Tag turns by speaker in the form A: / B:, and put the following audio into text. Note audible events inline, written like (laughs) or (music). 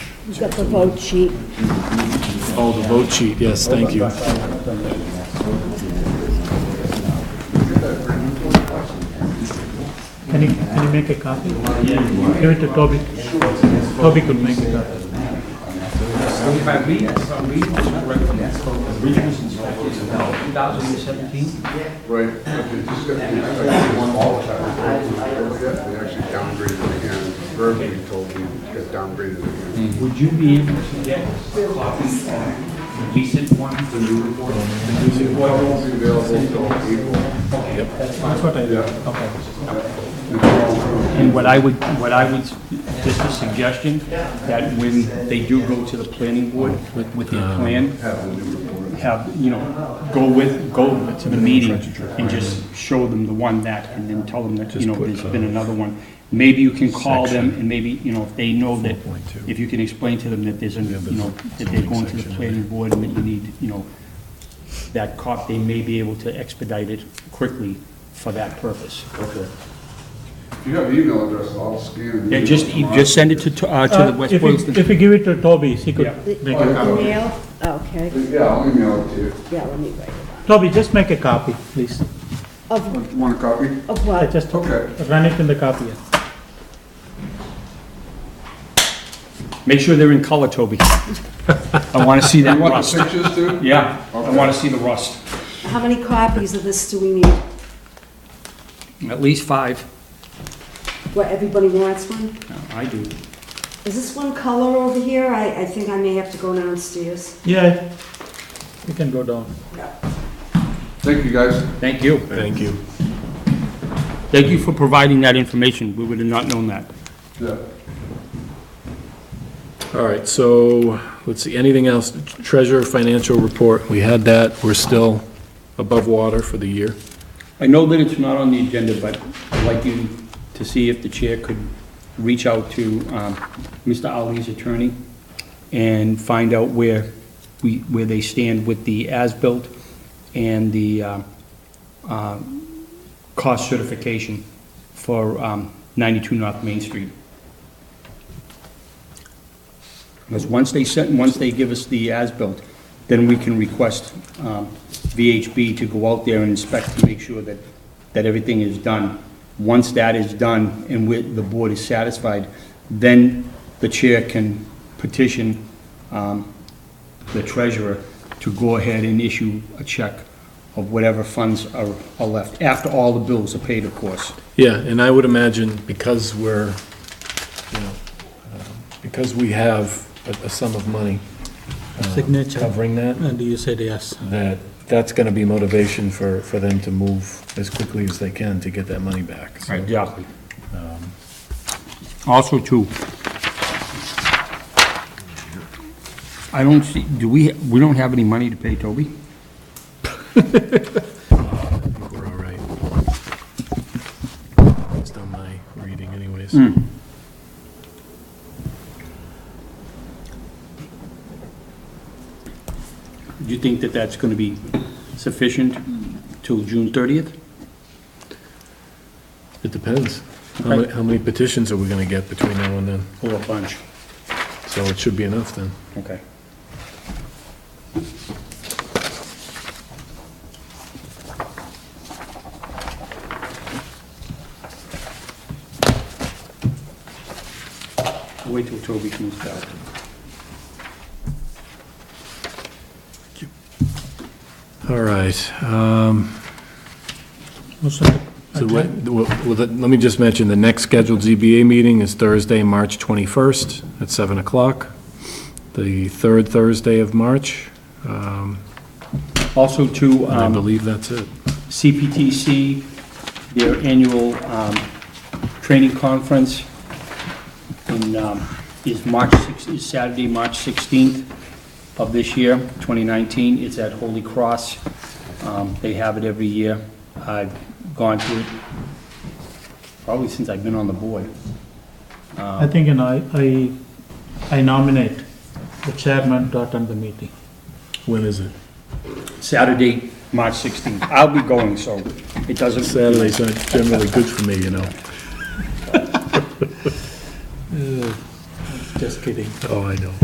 A: You got the vote sheet.
B: Oh, the vote sheet, yes, thank you.
C: Can you, can you make a copy? Give it to Toby. Toby could make a copy.
D: If I read, if I read, it's correct from that spoke, the revision is from 2017.
E: Right, but they just got, they just got one all the time. Don't forget, they actually downgraded again, verbally told me, got downgraded again.
D: Would you be able to get copies of the recent one, the new report? The new
E: Well, it won't be available until April.
C: That's what I, okay.
D: And what I would, what I would, just a suggestion, that when they do go to the planning board with, with their plan, have, you know, go with, go to the meeting and just show them the one that, and then tell them that, you know, there's been another one. Maybe you can call them and maybe, you know, if they know that, if you can explain to them that there's, a you know, that they're going to the planning board and that you need, you know, that cop, they may be able to expedite it quickly for that purpose. Okay.
E: If you have email address, I'll scan it.
D: Yeah, just, you just send it to, to, uh, to the West
C: If you,
D: Boylston.
C: if you give it to Toby, he could make it.
E: Yeah.
A: Email? Okay,
E: Yeah, I'll email it to you.
A: yeah, let me write it
C: Toby, just make a copy, please.
A: down. Of,
E: Want a copy?
A: of
C: I
A: what?
C: Just
E: Okay.
C: run it in the copier.
D: Make sure they're in
C: (laughs)
D: color, Toby. I wanna see that
E: You want
D: rust.
E: the pictures too?
D: Yeah, I wanna see the rust.
A: How many copies of this do we need?
D: At least five.
A: What, everybody wants one?
D: I do.
A: Is this one color over here? I, I think I may have to go downstairs.
C: Yeah, you can go down.
E: Thank you, guys.
D: Thank you.
B: Thank you.
D: Thank you for providing that information. We would have not known that.
E: Yeah.
B: All right, so, let's see, anything else? Treasurer financial report, we had that, we're still above water for the year.
D: I know that it's not on the agenda, but I'd like you to see if the chair could reach out to um, Mr. Ali's attorney and find out where we, where they stand with the as-built and the um, uh, cost certification for um, 92 North Main Street. Because once they send, once they give us the as-built, then we can request um, VHB to go out there and inspect to make sure that, that everything is done. Once that is done and we, the board is satisfied, then the chair can petition um, the treasurer to go ahead and issue a check of whatever funds are, are left, after all the bills are paid, of course.
B: Yeah, and I would imagine because we're, you know, um, because we have a a sum of money uh,
C: Signature,
B: covering that,
C: and you said yes.
B: that that's going to be motivation for, for them to move as quickly as they can to get that money back. so.
D: Exactly. Also, too, I don't see, do we, we don't have any money to pay Toby?
B: I think we're all right. It's done my reading anyways.
D: Do you think that that's going to be sufficient till June 30th?
B: It depends. How many, how many petitions are we going to get between now and then?
D: Or a bunch?
B: So it should be enough then.
D: Okay. Wait till Toby comes back.
B: All right. um,
C: Most of
B: So what, well, let let me just mention, the next scheduled ZBA meeting is Thursday, March 21st at 7 o'clock, the third Thursday of March. Um,
D: Also, too,
B: And I
D: um,
B: believe that's it.
D: CPTC, their annual um, training conference in, um, is March, six- is Saturday, March 16th of this year, 2019. It's at Holy Cross. Um, They have it every year. I've gone to it probably since I've been on the board.
C: I think, you know, I, I- I nominate the chairman to attend the meeting.
B: When is it?
D: Saturday, March 16th. I'll be going, so it doesn't.
B: Saturdays aren't generally good for me, you know.
C: Uh, Just kidding.
B: Oh, I know.